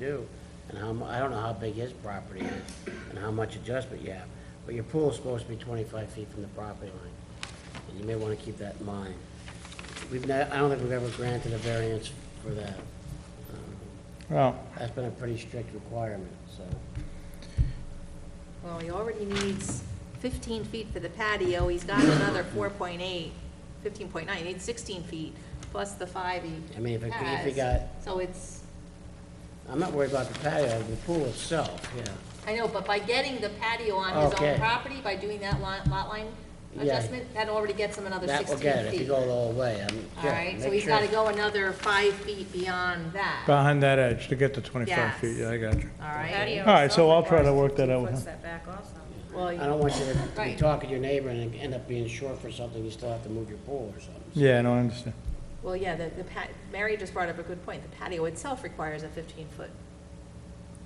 do, and how, mu- I don't know how big his property is, and how much adjustment you have, but your pool's supposed to be twenty-five feet from the property line, and you may wanna keep that in mind. We've ne I don't think we've ever granted a variance for that. Um, Well, That's been a pretty strict requirement, so. Well, he already needs 15 feet for the patio, he's got another 4.8, 15.9, he needs 16 feet, plus the five he I mean, if it- if he has. got- So it's, I'm not worried about the patio, the pool itself, yeah. I know, but by getting the patio on his Okay. own property, by doing that lot, lot line Yeah. adjustment, that already gets him another That 16 will feet. get it, if you go all the way, I'm, All yeah, right, so make he's sure. gotta go another five feet beyond that, all behind that edge to get to 25 feet, Yes. yeah, I got you. right? All right, so I'll try to work that out with him. Well, I don't want you to be Right. talking to your neighbor and end up being short for something, you still have to move your pool or something. Yeah, no, I understand. Well, yeah, the, the pat, Mary just brought up a good point. The patio itself requires a fifteen-foot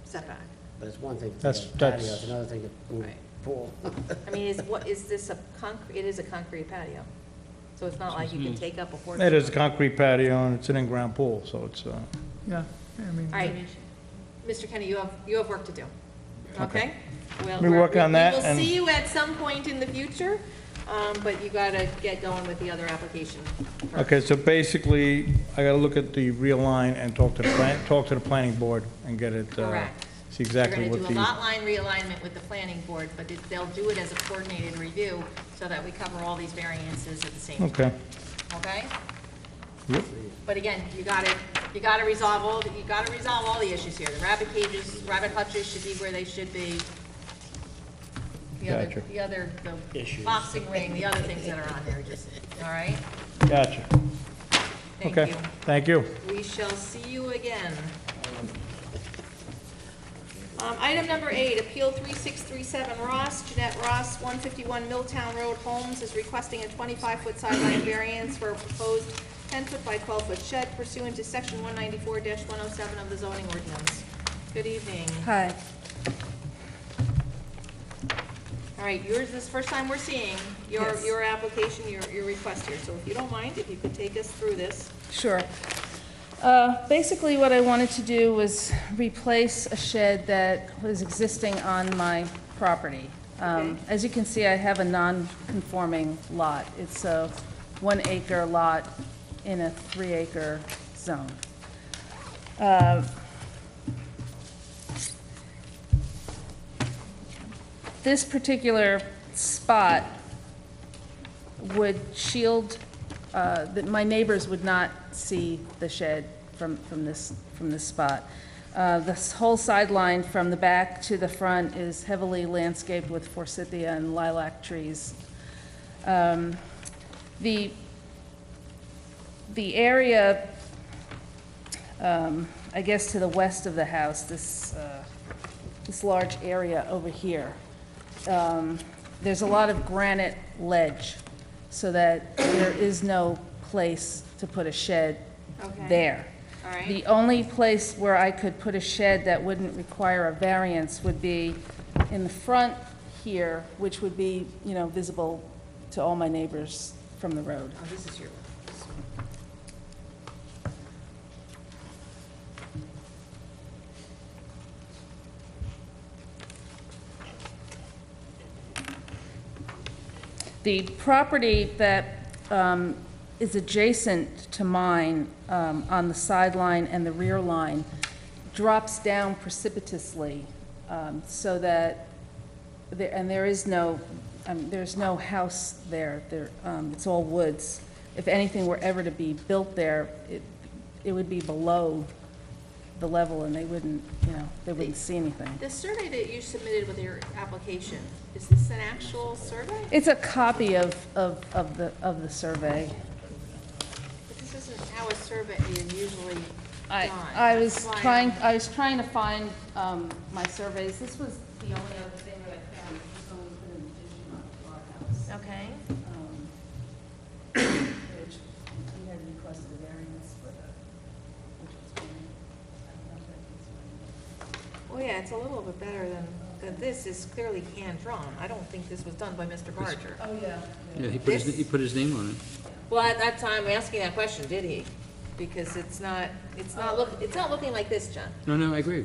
setback. But it's one thing to That's- have a patio, that's- it's another thing to move Right. a pool. I mean, is, what, is this a concrete, it is a concrete patio? So it's not like you can take up a porch. It is a concrete patio and it's an in-ground pool, so it's, uh, yeah, I mean, All right, Mr. Kenny, you have, you have work to do, okay? We'll- We work we're- on that We will and- see you at some point in the future, um, but you gotta get going with the other application. first. okay, so basically, I gotta look at the real line and talk to the plan, talk to the planning board and get it, uh, Correct. see exactly We're what gonna do a lot the, line realignment with the planning board, but it- they'll do it as a coordinated review so that we cover all these variances at the same time, okay. okay? Yep. But again, you gotta, you gotta resolve all, the- you gotta resolve all the issues here. The rabbit cages, rabbit hutches should be where they should be. The Gotcha. other, the other, the Issues. boxing ring, the other things that are on there, just, all right? Gotcha. Thank Okay, you. thank you. We shall see you again. Um, item number eight, Appeal three six three seven Ross, Jeanette Ross, one fifty-one Milltown Road Holmes is requesting a twenty-five foot sideline variance for a proposed ten foot by twelve foot shed pursuant to section one ninety-four one oh seven of the zoning ordinance. Good evening. Hi. All right, yours is the first time we're seeing your, Yes. your application, your, your request here, so if you don't mind, if you could take us through this. Sure. Uh, Basically, what I wanted to do was replace a shed that was existing on my property. Um, Okay. As you can see, I have a non-conforming lot. It's a one-acre lot in a three-acre zone. Uh, This particular spot would shield, uh, that my neighbors would not see the shed from, from this, from this spot. Uh, This whole sideline from the back to the front is heavily landscaped with forsythia and lilac trees. Um, The, the area, um, I guess to the west of the house, this, uh, this large area over here, um, there's a lot of granite ledge, so that there is no place to put a shed Okay. there. All right. The only place where I could put a shed that wouldn't require a variance would be in the front here, which would be, you know, visible to all my neighbors from the road. Oh, this is your, The property that um, is adjacent to mine um, on the sideline and the rear line drops down precipitously um, so that, there- and there is no, um, there's no house there, There, um, it's all woods. If anything were ever to be built there, it it would be below the level and they wouldn't, you know, they wouldn't see anything. The survey that you submitted with your application, is this an actual survey? It's a copy of, of of the, of the survey. But this isn't how a survey is usually done. I, I was That's why trying, I'm- I was trying to find um, my surveys. This was the only other thing that I found, which is someone put an addition on to our house. Okay, um, Which we had requested a variance for the, which was granted. I don't know if that well, yeah, it's a little bit better than, than this is clearly hand-drawn. I don't think this was done by Mr. Barger. was granted. Oh, yeah. Yeah, he put his, he put his name on it. Well, at that time, asking that question, did he? Because it's not, it's not look, it's not looking like this, John. No, no, I agree.